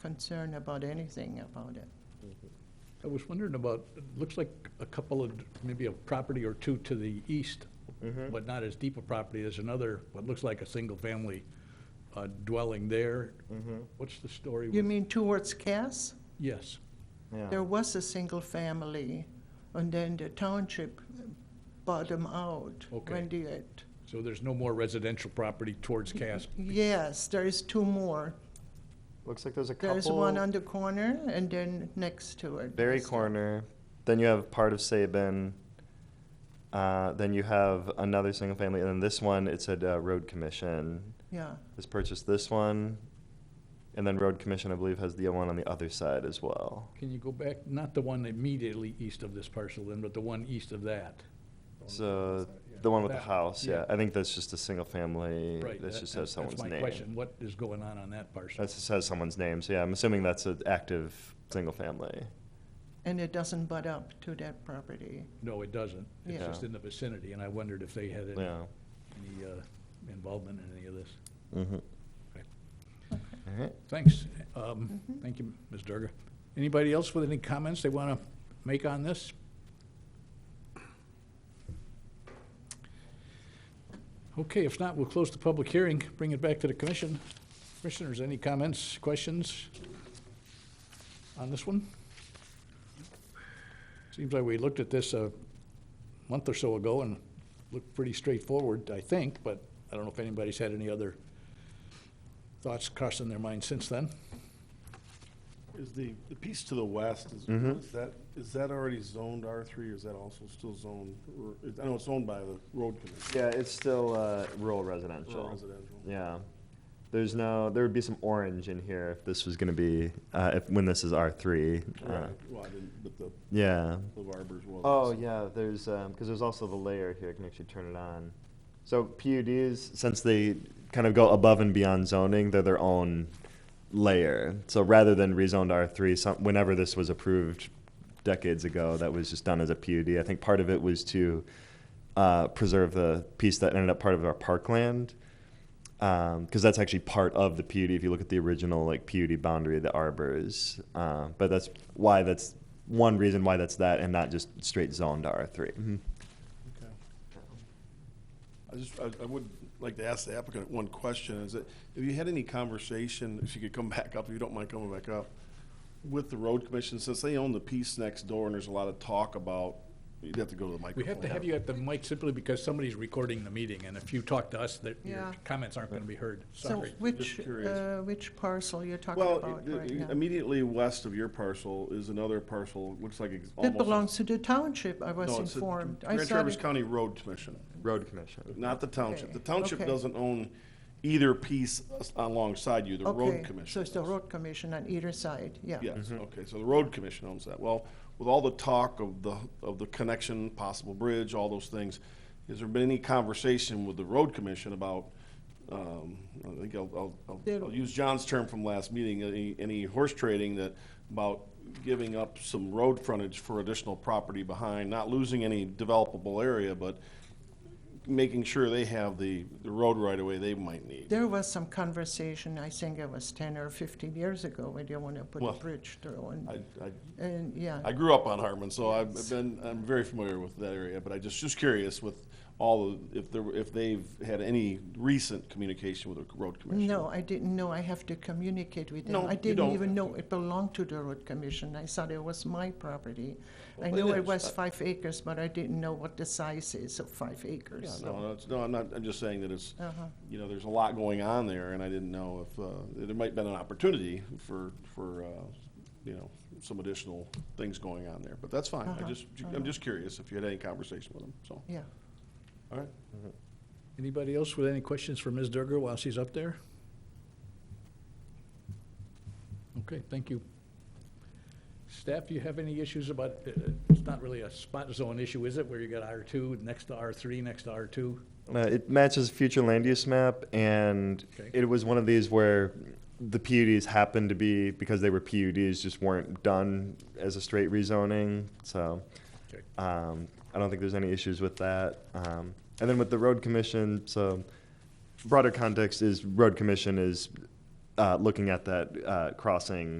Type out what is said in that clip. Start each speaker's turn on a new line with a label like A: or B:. A: concern about anything about it.
B: I was wondering about, it looks like a couple of, maybe a property or two to the east,
C: Mm-hmm.
B: but not as deep a property. There's another, what looks like a single-family uh, dwelling there.
C: Mm-hmm.
B: What's the story
A: You
B: with,
A: mean towards Cass?
B: yes,
A: There
C: Yeah,
A: was a single family, and then the township bought them out.
B: Okay.
A: When they had-
B: so there's no more residential property towards
A: Mm-hmm.
B: Cass.
A: yes, there is two more.
C: looks like there's a couple.
A: There's one on the corner, and then next to it.
C: Very
A: is-
C: corner. Then you have part of Sabin. Uh, then you have another single family, and then this one, it said uh, Road Commission
A: Yeah,
C: has purchased this one, and then Road Commission, I believe, has the one on the other side as well.
B: Can you go back, not the one immediately east of this parcel then, but the one east of that?
C: So uh, the one with the
B: That-
C: house,
B: yeah.
C: yeah, I think that's just a single family.
B: Right.
C: That
B: that-
C: just has
B: that's-
C: someone's
B: That's my question,
C: name.
B: what is going on on that parcel?
C: That just has someone's name. So yeah, I'm assuming that's an active single family.
A: and it doesn't butt up to that property.
B: No, it doesn't. It's
A: Yeah.
B: just in the vicinity, and I wondered if they had any
C: Yeah.
B: any, uh, involvement in any of this.
C: Mm-hmm.
B: Okay.
C: All right.
B: Thanks. Um, Thank you, Ms. Durga. Anybody else with any comments they want to make on this? Okay, if not, we'll close the public hearing, bring it back to the commission. Commissioners, any comments, questions on this one? Seems like we looked at this a month or so ago and looked pretty straightforward, I think, but I don't know if anybody's had any other thoughts crossing their mind since then.
D: Is the, the piece to the west, is,
C: Mm-hmm.
D: is that, is that already zoned R three, or is that also still zoned, or, I know it's owned by the road commission,
C: Yeah, it's still uh, rural
D: or
C: residential.
D: residential?
C: Yeah. There's no, there would be some orange in here if this was going to be, uh, if, when this is R3. uh,
D: Right, well, I didn't, but the,
C: Yeah.
D: the Barbers was.
C: Oh, yeah, there's, because there's also the layer here, I can actually turn it on. So PUDs, since they kind of go above and beyond zoning, they're their own layer. So rather than rezoned R3, some, whenever this was approved decades ago, that was just done as a PUD. I think part of it was to uh, preserve the piece that ended up part of our parkland, because Um, that's actually part of the PUD. If you look at the original like PUD boundary, the arbors, uh, but that's why that's one reason why that's that and not just straight zoned R Mm-hmm. 3
D: Okay. I just, I, I would like to ask the applicant one question, is that, have you had any conversation, if you could come back up, if you don't mind coming back up, with the road commission, since they own the piece next door, and there's a lot of talk about, you'd have to go to the microphone.
B: We have to have you at the mic simply because somebody's recording the meeting, and if you talk to us, that your
A: Yeah.
B: comments aren't going to be heard.
A: So
B: Sorry.
A: which,
D: curious.
A: uh, which parcel you're talking
D: Well,
A: about
D: i- i-
A: right now?
D: immediately west of your parcel is another parcel, looks like it's almost.
A: That belongs to the township, I was
D: No, it's the
A: informed. I
D: Grand
A: saw
D: Traverse
A: it-
D: County Road Commission,
C: Road Commission.
D: not the township. The
A: Okay,
D: township
A: okay.
D: doesn't own either piece as- alongside you, the
A: Okay,
D: road commission.
A: So it's the
D: does.
A: road commission on either side, yeah.
D: Yes, okay, so the road commission owns that. Well, with all the talk of the, of the connection, possible bridge, all those things, has there been any conversation with the road commission about, um, I think I'll, I'll-
A: There-
D: I'll, I'll use John's term from last meeting, any, any horse trading that, about giving up some road frontage for additional property behind, not losing any developable area, but making sure they have the, the road right away they might need?
A: There was some conversation, I think it was ten or fifteen years ago, where they want to put a
D: Well,
A: bridge through and,
D: I, I
A: and, yeah.
D: I grew up on Harmon, so I've been, I'm very familiar with that area, but I just, just curious with all, the- if there, were- if they've had any recent communication with the road commission?
A: No, I didn't know, I have to communicate with them.
D: No,
A: I
D: you
A: didn't
D: don't.
A: even know it belonged to the road commission, I thought it was my property. I
D: Well,
A: knew
D: it
A: it
D: is.
A: was five acres, but I didn't know what the size is of five
D: Yeah,
A: acres,
D: No,
A: so.
D: no, it's- no, I'm not, I'm just saying that it's,
A: Uh-huh.
D: you know, there's a lot going on there, and I didn't know if, uh, there might have been an opportunity for, for, uh, you know, some additional things going on there, but that's fine. I
A: Uh-huh,
D: just, I'm just curious if you had any conversation with them, so,
A: Yeah,
D: all right.
B: Anybody else with any questions for Ms. Durga while she's up there? Okay, thank you. Staff, you have any issues about, uh, it's not really a spot zone issue, is it, where you got R2 next to R3, next to R2?
C: Uh, it matches future land use map, and
B: Okay.
C: it was one of these where the PUDs happened to be because they were PUDs, just weren't done as a straight rezoning. So
B: Okay.
C: um, I don't think there's any issues with that. Um, and then with the road commission, so broader context is road commission is uh, looking at that uh, crossing